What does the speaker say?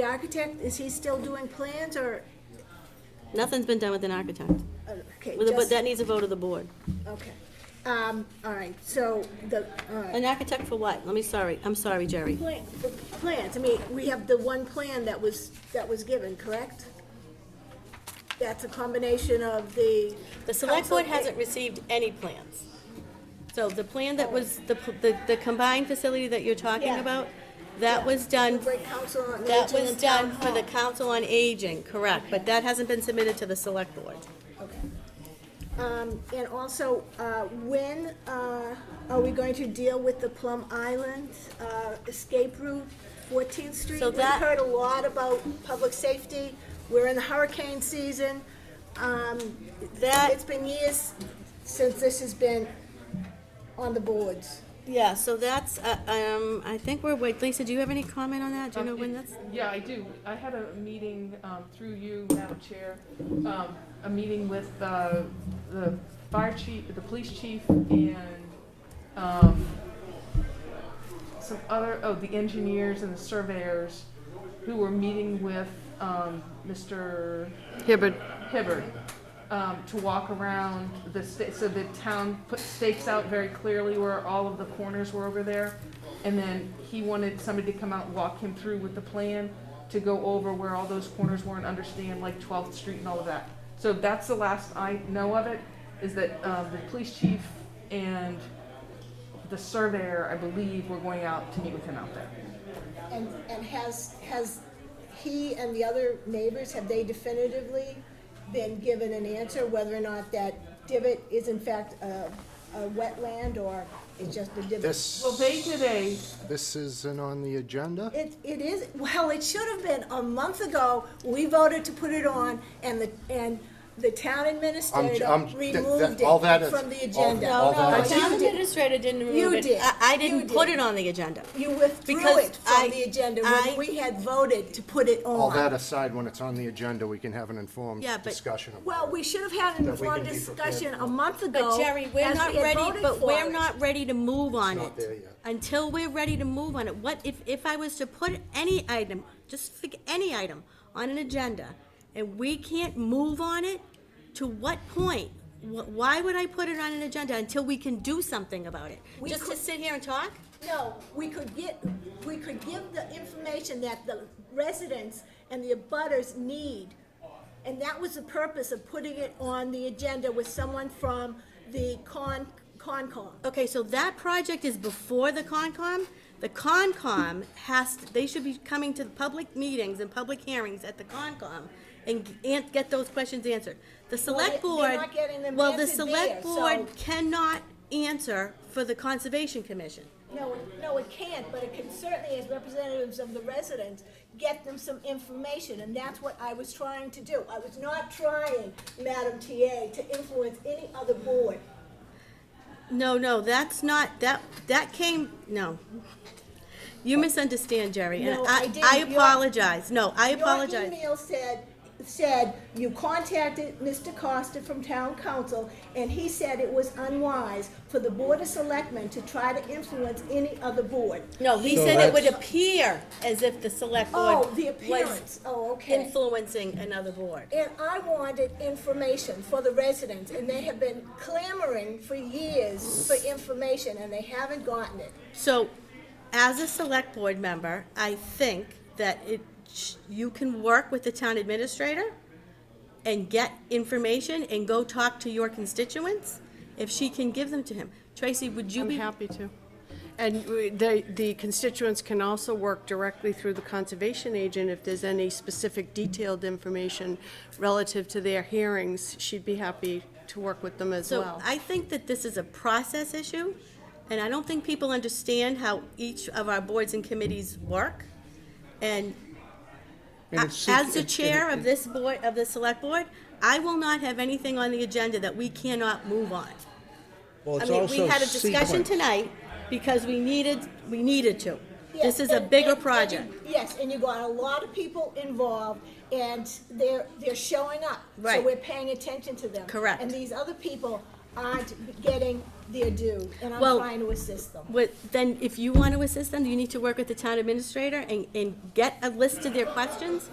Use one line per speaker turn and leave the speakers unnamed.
The architect, is he still doing plans or,
Nothing's been done with an architect.
uh, okay,
With a- But
just,
that needs a vote of the board.
okay. Um, all right, so the, all right.
An architect for what? Let me, sorry, I'm sorry, Jerry.
Plan- the Plans, I mean, we have the one plan that was, that was given, correct? That's a combination of the.
The select board
Council-
hasn't received any plans. So the plan that was, the, p- the the combined facility that you're talking
Yeah.
about, that was done,
Newbury Council on
that
Aging
was
and Town
done for the
Hall.
council on aging, correct, but that hasn't been submitted to the select board.
Um, and also, uh, when, uh, are we going to deal with the Plum Island, uh, escape route, Fourteenth Street?
So
We've
that-
heard a lot about public safety, we're in the hurricane season, um,
That-
it's been years since this has been on the boards.
Yeah, so that's, uh, um, I think we're, wait, Lisa, do you have any comment on that? Do you know
Um,
when
it-
that's?
Yeah, I do. I had a meeting um, through you, Madam Chair, um, a meeting with uh, the fire chief, the police chief, and um, some other, oh, the engineers and the surveyors who were meeting with um, Mr. Hibbard. Hibbard, um, to walk around the, sta- so the town put stakes out very clearly where all of the corners were over there. And then he wanted somebody to come out and walk him through with the plan to go over where all those corners were and understand like 12th Street and all of that. So that's the last I know of it, is that um, the police chief and the surveyor, I believe, were going out to meet with him out there.
And, and has, has he and the other neighbors, have they definitively been given an answer whether or not that divot is in fact a, a wetland or it's just a divot?
Well,
This,
they did a,
this isn't on the agenda?
It, it is, well, it should have been a month ago, we voted to put it on and the, and the town
I'm j-
administrator
I'm- that-
removed
that- all that
it
is-
from the
all-
agenda.
No,
all that
no,
I
the
did.
town administrator didn't
You
remove it.
did.
I, I
You
didn't
did.
put it on the agenda.
You withdrew
Because
it
I-
from the agenda
I-
when we had voted to put it on.
All that aside, when it's on the agenda, we can have an informed
Yeah, but-
discussion. about
Well, we should have had an
That we can
informed
be prepared
discussion
for.
a month ago.
But Jerry, we're
as
not
we had
ready,
voted
but
for
we're
it.
not ready to move on
not there
it.
yet.
Until we're ready to move on it, what, if, if I was to put any item, just pick any item on an agenda, and we can't move on it, to what point? Wh- Why would I put it on an agenda until we can do something about it?
We
Just to
could-
sit here and talk?
No, we could get, we could give the information that the residents and the abutters need. And that was the purpose of putting it on the agenda with someone from the Con, Concom.
Okay, so that project is before the Concom? The Concom has, to- they should be coming to the public meetings and public hearings at the Concom and, g- and get those questions answered. The select
Well,
board.
they- they're not getting them
Well, the
answered there,
select board
so-
cannot answer for the Conservation Commission.
No, it- no, it can't, but it can certainly, as representatives of the residents, get them some information, and that's what I was trying to do. I was not trying, Madam TA, to influence any other board.
No, no, that's not, that, that came, no. You misunderstand, Jerry, and
No, I
I,
didn't.
I
You're-
apologize. No, I
Your
apologize.
email said, said you contacted Mr. Costa from town council, and he said it was unwise for the board of selectmen to try to influence any other board.
No, he
So
said it would
that's-
appear as if the select board
Oh, the
was
appearance, oh, okay.
influencing another board.
And I wanted information for the residents, and they have been clamoring for years for information, and they haven't gotten it.
So, as a select board member, I think that it, sh- you can work with the town administrator and get information and go talk to your constituents if she can give them to him. Tracy, would you
I'm
be?
happy to. And we- the, the constituents can also work directly through the conservation agent if there's any specific detailed information relative to their hearings. She'd be happy to work with them as
So
well.
I think that this is a process issue, and I don't think people understand how each of our boards and committees work. And
And
a-
it's-
as the
it- it-
chair of this board, of the select board, I will not have anything on the agenda that we cannot move on.
Well,
I
it's
mean, we
also
had a discussion
sequenced.
tonight because we needed, we needed to.
Yes,
This is a
and-
bigger
and- and
project.
you- Yes, and you got a lot of people involved, and they're, they're showing up.
Right.
So we're paying attention to them.
Correct.
And these other people aren't getting their due, and I'm
Well,
trying to assist them.
What, then if you want to assist them, you need to work with the town administrator and, and get a list of their questions